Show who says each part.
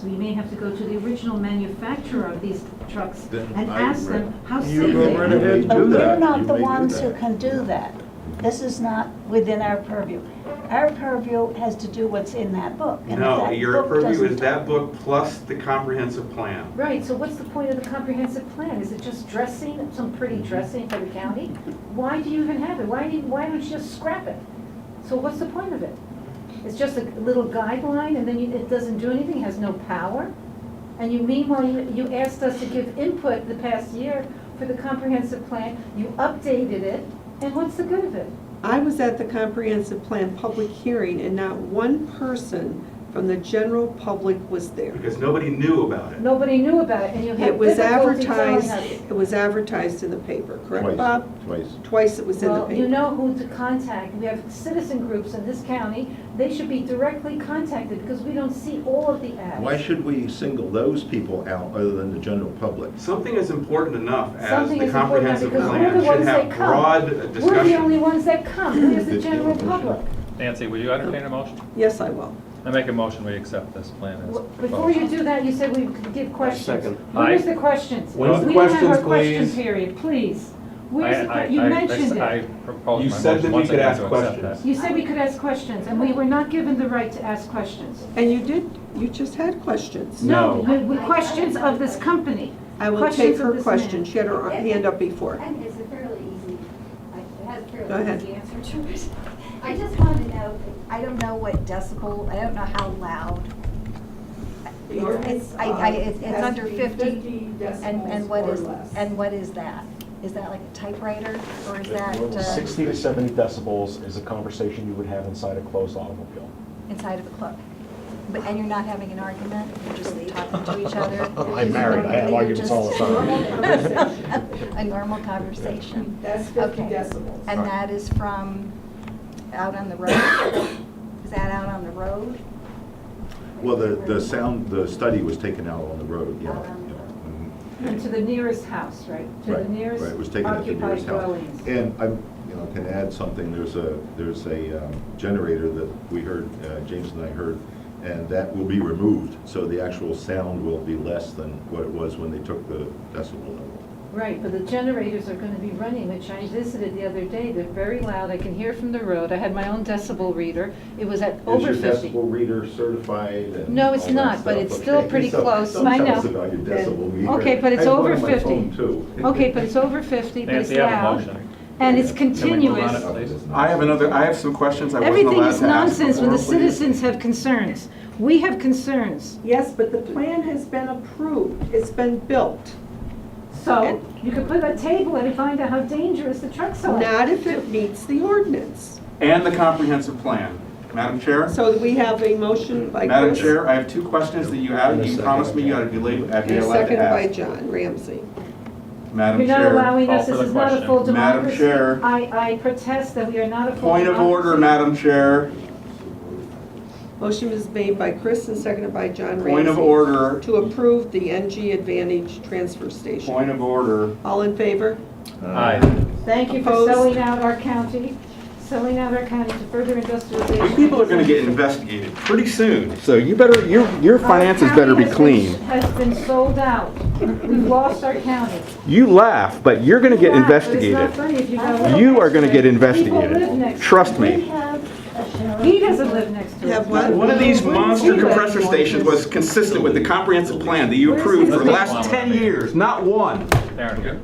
Speaker 1: We may have to go to the original manufacturer of these trucks
Speaker 2: Then
Speaker 1: and
Speaker 2: I
Speaker 1: ask them
Speaker 2: re-
Speaker 1: how
Speaker 3: You
Speaker 1: safe
Speaker 3: go
Speaker 1: they
Speaker 3: right
Speaker 1: are.
Speaker 2: You
Speaker 3: ahead.
Speaker 2: may
Speaker 3: do
Speaker 4: But
Speaker 2: do
Speaker 4: we're
Speaker 2: that.
Speaker 4: not
Speaker 2: You
Speaker 4: the
Speaker 2: may do
Speaker 4: ones who
Speaker 2: that.
Speaker 4: can do that. This is not within our purview. Our purview has to do what's in that book. and if
Speaker 5: No,
Speaker 4: that
Speaker 5: your
Speaker 4: book
Speaker 5: purview
Speaker 4: doesn't-
Speaker 5: is that book plus the comprehensive plan.
Speaker 6: Right, so what's the point of the comprehensive plan? Is it just dressing, some pretty
Speaker 2: Mm-hmm.
Speaker 6: dressing for the county? Why do you even have it? Why, do- why don't you just scrap it? So what's the point of it? It's just a little guideline and then you- it doesn't do anything, has no power? And you meanwhile, you you asked us to give input the past year for the comprehensive plan, you updated it, and what's the good of it?
Speaker 7: I was at the comprehensive plan public hearing and not one person from the general public was there.
Speaker 5: Because nobody knew about it.
Speaker 6: Nobody knew about it and you had
Speaker 7: It was
Speaker 6: difficulty telling us.
Speaker 7: advertised, it was advertised in the paper, correct,
Speaker 2: Twice,
Speaker 7: Bob?
Speaker 2: Twice.
Speaker 7: Twice it was in the
Speaker 6: Well, you
Speaker 7: paper.
Speaker 6: know who to contact. We have citizen groups in this county. They should be directly contacted because we don't see all of the ads.
Speaker 2: Why should we single those people out other than the general public?
Speaker 5: Something as important enough as
Speaker 6: Something
Speaker 5: the
Speaker 6: is important now
Speaker 5: comprehensive
Speaker 6: because we're
Speaker 5: plan
Speaker 6: the
Speaker 5: should
Speaker 6: ones
Speaker 5: have
Speaker 6: that come.
Speaker 5: broad
Speaker 6: We're the only
Speaker 5: discussion.
Speaker 6: ones that come. Where's the
Speaker 2: Did you
Speaker 6: general
Speaker 2: motion?
Speaker 6: public?
Speaker 8: Nancy, would you entertain a motion?
Speaker 7: Yes, I will.
Speaker 8: I make a motion, we accept this plan as
Speaker 6: Well, Before you do that, you said we could give questions.
Speaker 3: second.
Speaker 6: Where's the questions?
Speaker 3: When's the
Speaker 6: We don't have our
Speaker 3: questions,
Speaker 6: question
Speaker 3: please?
Speaker 1: Period, please. Where's the,
Speaker 8: I- I-
Speaker 1: que- you
Speaker 8: I-
Speaker 1: mentioned
Speaker 8: I
Speaker 1: it.
Speaker 5: You
Speaker 8: proposed my
Speaker 5: said that
Speaker 8: motion
Speaker 5: we
Speaker 8: once
Speaker 5: could
Speaker 8: again
Speaker 5: ask
Speaker 8: to accept
Speaker 5: questions.
Speaker 8: that.
Speaker 1: You said we could ask questions, and we were not given the right to ask questions.
Speaker 7: And you did, you just had questions.
Speaker 1: No, we- we- questions of this company.
Speaker 7: I will
Speaker 1: Questions
Speaker 7: take
Speaker 1: of
Speaker 7: her
Speaker 1: this
Speaker 7: question,
Speaker 1: man.
Speaker 7: she had her hand up before.
Speaker 9: And it's a fairly easy, like, it has a
Speaker 7: Go
Speaker 9: fairly
Speaker 7: ahead.
Speaker 9: easy answer to it. I just wanted to know, I don't know what decibel, I don't know how loud. It's, it's, I, I, it's it's under fifty. And, and what is, and what is that? Is that like a typewriter or is that uh,
Speaker 10: 60 to 70 decibels is a conversation you would have inside a closed automobile.
Speaker 9: inside of a club? But, and you're not having an argument, you're just talking to each other?
Speaker 10: I'm married, I have arguments all the
Speaker 9: time. A normal conversation.
Speaker 3: That's
Speaker 9: 50 decibels. And that is from out on the road? Is that out on the road?
Speaker 2: Well, the, the sound, the study was taken out on the road, yeah.
Speaker 6: And to the nearest house, right? To the
Speaker 2: Right,
Speaker 6: nearest
Speaker 2: right, it was taken at the
Speaker 6: occupied
Speaker 2: nearest house.
Speaker 6: dwellings.
Speaker 2: And I, you know, can add something, there's a, there's a um, generator that we heard, uh, James and I heard, and that will be removed, so the actual sound will be less than what it was when they took the decibel level.
Speaker 6: Right, but the generators are gonna be running, which I visited the other day, they're very loud, I can hear from the road, I had my own decibel reader, it was at over
Speaker 2: Is
Speaker 6: fifty.
Speaker 2: your decibel reader certified and?
Speaker 6: No, it's
Speaker 2: all that
Speaker 6: not, but
Speaker 2: stuff?
Speaker 6: it's still
Speaker 2: Okay,
Speaker 6: pretty
Speaker 2: so
Speaker 6: close.
Speaker 2: Don't
Speaker 6: I
Speaker 2: tell us
Speaker 6: know.
Speaker 2: about your decibel reader.
Speaker 6: Okay, but it's
Speaker 2: I have one
Speaker 6: over
Speaker 2: on my
Speaker 6: 50.
Speaker 2: phone, too.
Speaker 6: Okay, but it's over fifty, but it's
Speaker 8: Nancy, I have a
Speaker 6: loud,
Speaker 8: motion.
Speaker 6: and it's
Speaker 8: Can we move on
Speaker 6: continuous.
Speaker 8: it, please?
Speaker 3: I have another, I have some questions I wasn't
Speaker 6: Everything
Speaker 3: allowed
Speaker 6: is
Speaker 3: to ask
Speaker 6: nonsense when the
Speaker 3: before, please.
Speaker 6: citizens have concerns. We have concerns,
Speaker 7: Yes, but the plan has been approved, it's been built.
Speaker 6: so you could put a table and find out how dangerous the trucks are.
Speaker 7: Not if it meets the ordinance.
Speaker 3: And the comprehensive plan. Madam Chair?
Speaker 7: So we have a motion by
Speaker 3: Madam
Speaker 7: Chris.
Speaker 3: Chair, I have two questions that you added, you promised me you ought to be late, I'd be
Speaker 7: And
Speaker 3: allowed
Speaker 7: seconded
Speaker 3: to
Speaker 7: by
Speaker 3: ask.
Speaker 7: John Ramsey.
Speaker 3: Madam
Speaker 6: You're not
Speaker 3: Chair,
Speaker 6: allowing
Speaker 8: Call
Speaker 6: us,
Speaker 8: for
Speaker 6: this
Speaker 8: the
Speaker 6: is not a
Speaker 8: question.
Speaker 6: full
Speaker 3: Madam
Speaker 6: democracy.
Speaker 3: Chair.
Speaker 6: I, I protest that we are not a full
Speaker 3: point of order,
Speaker 6: democracy.
Speaker 3: Madam Chair,
Speaker 7: Motion was made by Chris and seconded by John Ramsey.
Speaker 3: point of order,
Speaker 7: To approve the NG Advantage Transfer Station.
Speaker 3: point of order.
Speaker 7: All in favor?
Speaker 2: Uh,
Speaker 8: Aye.
Speaker 6: Thank you for
Speaker 7: Opposed?
Speaker 6: selling out our county, selling out our county to further industrialization.
Speaker 3: You people are gonna get investigated pretty soon.
Speaker 10: So you better, your, your
Speaker 6: Our
Speaker 10: finances
Speaker 6: county
Speaker 10: better be
Speaker 6: has been-
Speaker 10: clean.
Speaker 6: Has been sold out. We've lost our county.
Speaker 10: You laugh, but you're going to get
Speaker 6: Yeah, but it's not
Speaker 10: investigated.
Speaker 6: funny if you go-
Speaker 10: You are going to get
Speaker 6: People live
Speaker 10: investigated.
Speaker 6: next-
Speaker 10: Trust
Speaker 4: We
Speaker 10: me.
Speaker 4: have a sheriff.
Speaker 6: He doesn't live next to us.
Speaker 7: Have what?
Speaker 3: One of these monster compressor stations was consistent with the comprehensive plan that you approved for the last 10 years, not one.
Speaker 8: There we go.